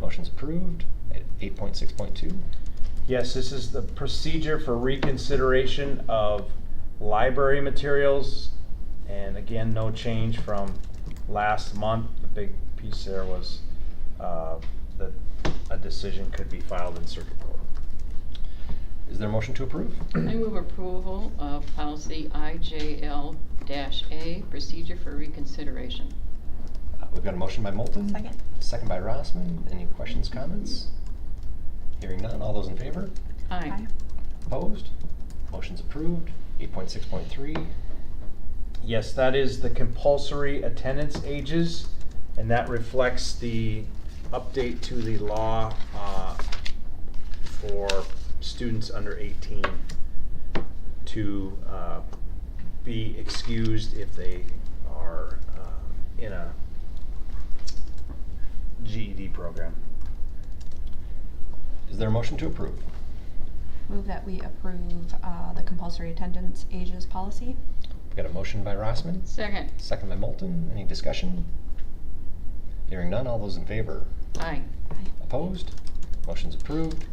Motion's approved. Eight point six point two. Yes, this is the procedure for reconsideration of library materials. And again, no change from last month. The big piece there was uh, that a decision could be filed in circuit court. Is there a motion to approve? I move approval of policy IJL A, procedure for reconsideration. Uh, We've got a motion by Moulton. Second. Second by Rossman. Any questions, comments? Hearing none. All those in favor? Aye. Opposed? Motion's approved. Eight point six point three. Yes, that is the compulsory attendance ages, and that reflects the update to the law uh, for students under 18 to uh, be excused if they are uh, in a GED program. Is there a motion to approve? Move that we approve uh, the compulsory attendance ages policy. We've got a motion by Rossman. Second. Second by Moulton. Any discussion? Hearing none. All those in favor? Aye. Opposed? Motion's approved.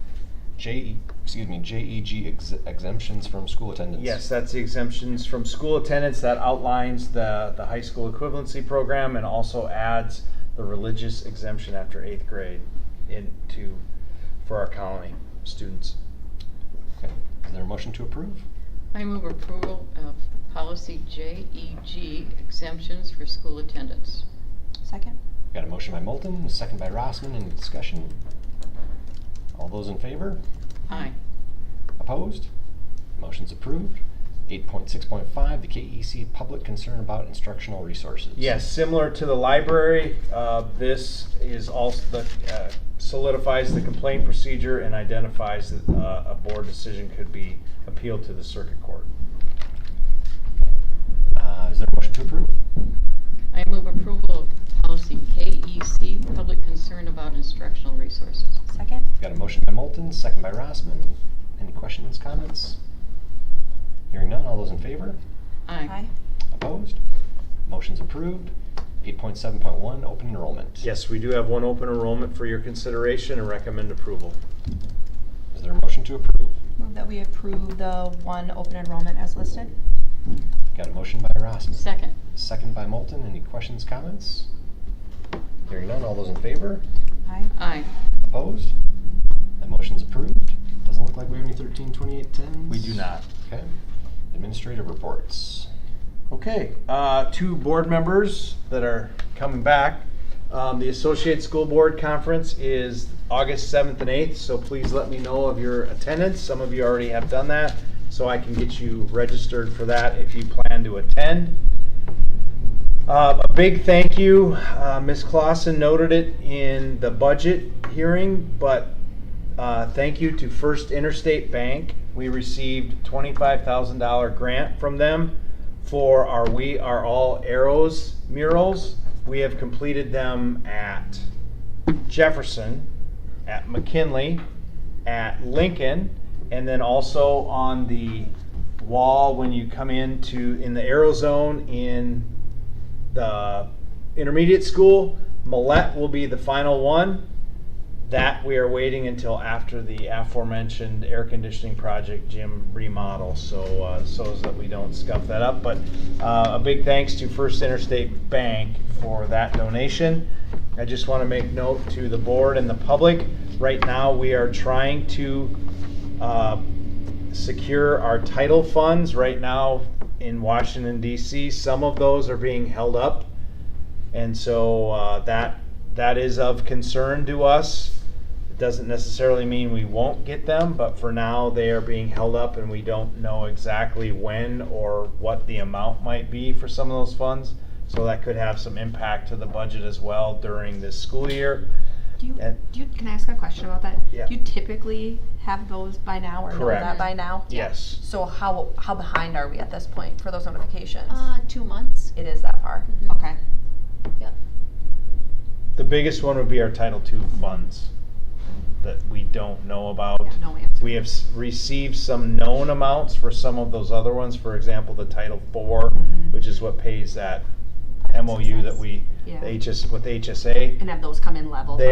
J, E, excuse me, JEG ex- exemptions from school attendance. Yes, that's the exemptions from school attendance that outlines the, the high school equivalency program and also adds the religious exemption after eighth grade into, for our colony students. Okay. Is there a motion to approve? I move approval of policy JEG, exemptions for school attendance. Second. Got a motion by Moulton, a second by Rossman, any discussion? All those in favor? Aye. Opposed? Motion's approved. Eight point six point five, the KEC public concern about instructional resources. Yes, similar to the library, uh, this is also, the, uh, solidifies the complaint procedure and identifies that uh, a board decision could be appealed to the circuit court. Uh, is there a motion to approve? I move approval of policy KEC, public concern about instructional resources. Second. Got a motion by Moulton, second by Rossman. Any questions, comments? Hearing none, all those in favor? Aye. Opposed? Motion's approved. Eight point seven point one, open enrollment. Yes, we do have one open enrollment for your consideration and recommend approval. Is there a motion to approve? Move that we approve the one open enrollment as listed. Got a motion by Rossman. Second. Second by Moulton. Any questions, comments? Hearing none, all those in favor? Aye. Aye. Opposed? That motion's approved. Doesn't look like we have any thirteen twenty-eight tens. Okay. Administrative reports. Okay, uh, two board members that are coming back. Um, the Associate School Board Conference is August 7th and 8th, so please let me know of your attendance. Some of you already have done that, so I can get you registered for that if you plan to attend. Uh, a big thank you. Uh, Ms. Clausen noted it in the budget hearing, but uh, thank you to First Interstate Bank. We received $25,000 grant from them for our We Are All Arrows murals. We have completed them at Jefferson, at McKinley, at Lincoln, and then also on the wall when you come into in the arrow zone in the intermediate school. Millette will be the final one. That we are waiting until after the aforementioned air conditioning project gym remodel, so, uh, so as that we don't scuff that up. But, uh, a big thanks to First Interstate Bank for that donation. I just wanna make note to the board and the public, right now, we are trying to, uh, secure our title funds. Right now, in Washington DC, some of those are being held up and so uh, that that is of concern to us. It doesn't necessarily mean we won't get them, but for now they are being held up, and we don't know exactly when or what the amount might be for some of those funds. So that could have some impact to the budget as well during this school year. Do you, And- do you, can I ask a question about that? Yeah. Do you typically have those by now or know Correct. that by now? Yes. So how, how behind are we at this point for those notifications? Uh, two months. It is that far? Mhm. Okay. Yep. The biggest one would be our Title II funds that we don't know about. Yeah, no answer. We have s- received some known amounts for some of those other ones, for example, the Title IV, Mhm. which is what pays that Project MOU that success. we, Yeah. the HS, with HSA. And have those come in level? They